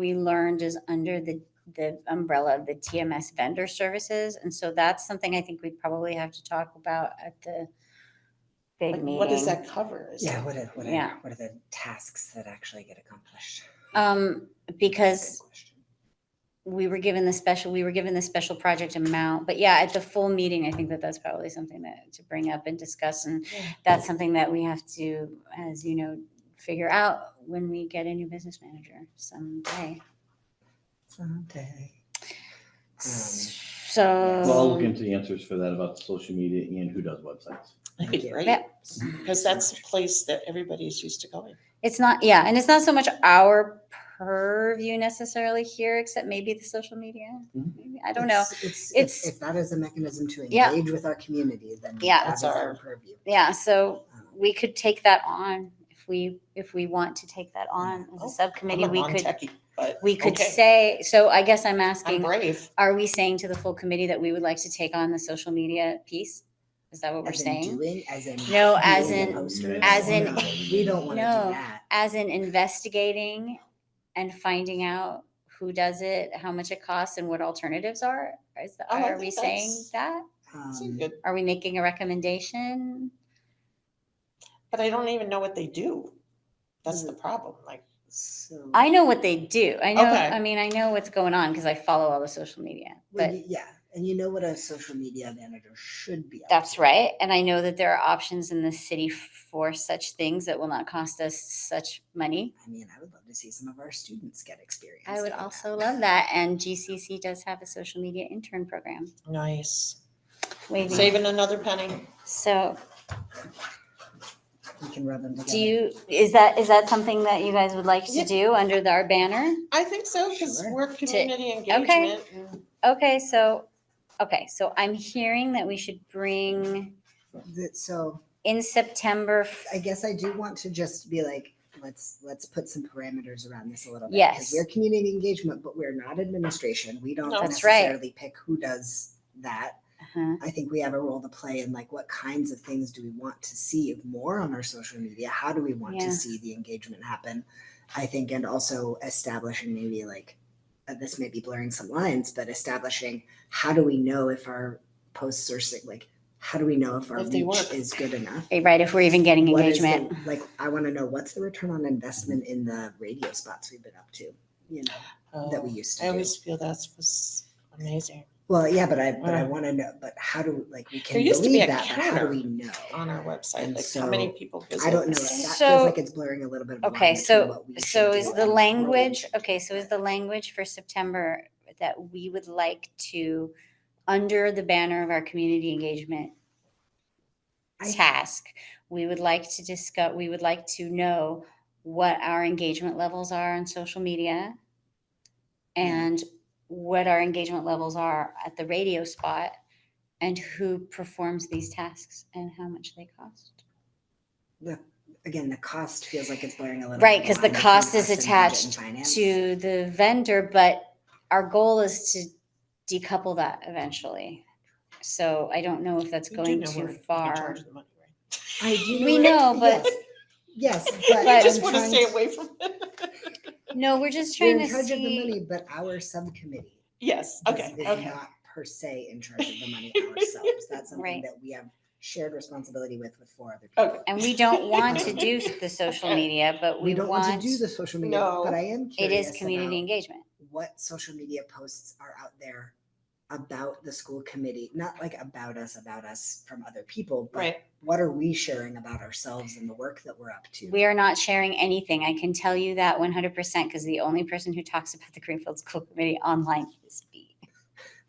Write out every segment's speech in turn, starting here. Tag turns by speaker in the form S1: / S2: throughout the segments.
S1: we learned is under the, the umbrella of the TMS vendor services. And so that's something I think we probably have to talk about at the big
S2: Like,
S1: meeting.
S2: What does that cover? Is
S3: Yeah,
S2: it-
S3: what are, what are,
S1: Yeah.
S3: what are the tasks that actually get accomplished?
S1: Um, because
S3: Good question.
S1: we were given the special, we were given the special project amount, but yeah, at the full meeting, I think that that's probably something that to bring up and discuss, and
S2: Yeah.
S1: that's something that we have to, as you know, figure out when we get a new business manager someday.
S3: Someday.
S1: So.
S4: Well, I'll look into the answers for that about social media and who does websites.
S2: That'd be
S3: Yeah.
S2: great.
S1: Yeah.
S2: Because that's a place that everybody's used to going.
S1: It's not, yeah, and it's not so much our purview necessarily here, except maybe the social media.
S2: Mm-hmm.
S4: Mhm.
S1: Maybe, I don't know.
S3: It's- It's,
S1: It's-
S3: it's, if that is a mechanism to
S1: Yeah.
S3: engage with our community, then
S1: Yeah.
S3: that
S2: That's
S3: is our
S2: our-
S3: purview.
S1: Yeah, so
S3: Um,
S1: we could take that on if we, if we want to take that on as
S2: Oh,
S1: a
S2: I'm
S1: subcommittee,
S2: I'm a
S1: we could,
S2: non-techie, But
S1: we could
S2: okay.
S1: say, so I guess I'm
S2: I'm
S1: asking,
S2: brave.
S1: are we saying to the full committee that we would like to take on the social media piece? Is that what we're
S3: as in
S1: saying?
S3: Doing, as in.
S1: No, as
S3: being
S1: in-
S3: posters.
S1: as in-
S3: No, We don't want to
S1: No.
S3: do that.
S1: As in investigating and finding out who does it, how much it costs and what alternatives are? Is,
S2: Oh, I
S1: are we
S2: think
S1: saying
S2: that's-
S1: that?
S2: It's
S3: Um,
S2: good.
S1: Are we making a recommendation?
S2: But I don't even know what they do. That's
S3: Mm.
S2: the problem. Like,
S3: so-
S1: I know what they do. I know,
S2: Okay.
S1: I mean, I know what's going on because I follow all the social media,
S3: Well,
S1: but
S3: you- Yeah, and you know what a social media manager should be. up
S1: that's
S3: to.
S1: right. And I know that there are options in the city for such things that will not cost us such money.
S3: I mean, I would love to see some of our students get experience.
S1: I would
S3: doing
S1: also love that. And GCC does have a social media intern program.
S2: nice.
S1: Waving.
S2: Saving another penny.
S1: So
S3: We can rub them together.
S1: do you, is that, is that something that you guys would like to
S2: Yeah.
S1: do under the- our banner?
S2: I think so, because
S3: Sure.
S2: we're community engagement. and-
S1: Okay, so, okay, so I'm hearing that we should bring
S3: The- So
S1: in September. f-
S3: I guess I do want to just be like, let's, let's put some parameters around this a little bit. 'cause
S1: Yes.
S3: We're community engagement, but we're not administration. We don't
S2: No.
S1: That's right.
S3: necessarily pick who does that.
S1: Uh-huh.
S3: I think we have a role to play in like what kinds of things do we want to see more on our social media? How do we want
S1: Yeah.
S3: to see the engagement happen? I think, and also establishing maybe like uh, this may be blurring some lines, but establishing how do we know if our posts are sig- like how do we know if our
S2: If they
S3: reach
S2: work.
S3: is good enough?
S1: Right, if we're even getting
S3: What is the-
S1: engagement.
S3: like I want to know what's the return on investment in the radio spots we've been up to, you know, that we
S2: Oh,
S3: used to
S2: I
S3: do.
S2: always feel that's was amazing
S3: Well, yeah, but I but I
S2: Mm.
S3: want to know. But how do like we can
S2: There used to be
S3: believe
S2: a
S3: that? But how do
S2: counter
S3: we know?
S2: on our website,
S3: And
S2: like how many
S3: so,
S2: people visit.
S3: I don't know. That
S1: So-
S3: feels like it's blurring a little bit. Of a line
S1: Okay,
S3: between
S1: so-
S3: what we
S1: So
S3: should do
S1: is
S3: and
S1: the
S3: what we
S1: language,
S3: shouldn't
S1: okay, so is the language for September that we would like to, under the banner of our community engagement
S3: I-
S1: task, we would like to discuss, we would like to know what our engagement levels are on social media
S3: Yeah.
S1: and what our engagement levels are at the radio spot and who performs these tasks and how much they cost.
S3: Again, the cost feels like it's blurring a little.
S1: Right,
S3: bit
S1: 'cause the
S3: line between
S1: cost is
S3: us and budget
S1: attached
S3: and finance.
S1: to the vendor, but our goal is to decouple that eventually. So I don't know if that's
S2: You do
S1: going
S2: know we're
S1: too
S2: in
S1: far.
S2: charge of the money, right?
S3: I do.
S1: We
S3: it-
S1: know, but-
S3: yes, yes,
S2: I
S3: but
S1: But-
S2: just
S3: I'm
S2: want to
S3: trying
S2: stay away from it.
S1: No, we're just
S3: We're
S1: trying
S3: in
S1: to
S3: charge of the
S1: see.
S3: money, but our subcommittee.
S2: Yes,
S3: is-
S2: okay,
S3: is
S2: okay.
S3: Not per se in charge of the money ourselves. That's
S1: Right.
S3: something that we have shared responsibility with with four other people.
S2: Okay.
S1: And we don't want to do s- the social
S2: Okay.
S1: media, but
S3: We
S1: we
S3: don't want
S1: want,
S3: to do
S1: it
S3: the social media, but
S2: No.
S3: I am curious.
S1: is community
S3: about
S1: engagement.
S3: What social media posts are out there about the school committee? Not like about us, about us from other people, but
S2: Right.
S3: what are we sharing about ourselves and the work that we're up to?
S1: We are not sharing anything. I can tell you that one hundred percent, because the only person who talks about the Greenfield School Committee online is me.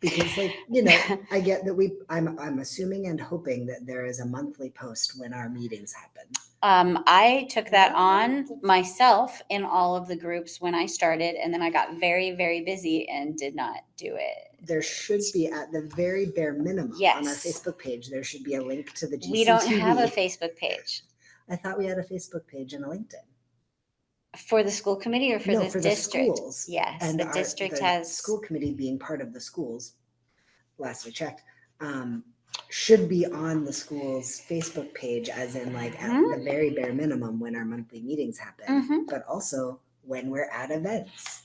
S3: because like you know i get that we i'm i'm assuming and hoping that there is a monthly post when our meetings happen
S1: Um, I took that
S2: Yeah.
S1: on
S3: Mm-hmm.
S1: myself in all of the groups when I started, and then I got very, very busy and did not do it.
S3: there should be at the very bare minimum on our
S1: Yes.
S3: facebook page there should be a link to the GCTV.
S1: We don't have a Facebook page
S3: i thought we had a facebook page and a linkedin
S1: for the school committee or for
S3: no
S1: the
S3: for the
S1: district.
S3: schools
S1: Yes, the
S3: our-
S1: district
S3: the
S1: has,
S3: school committee being part of the schools last we checked um should be on the school's facebook page as in like at
S1: Mhm.
S3: the very bare minimum when our monthly meetings happen
S1: Mhm.
S3: but also when we're at events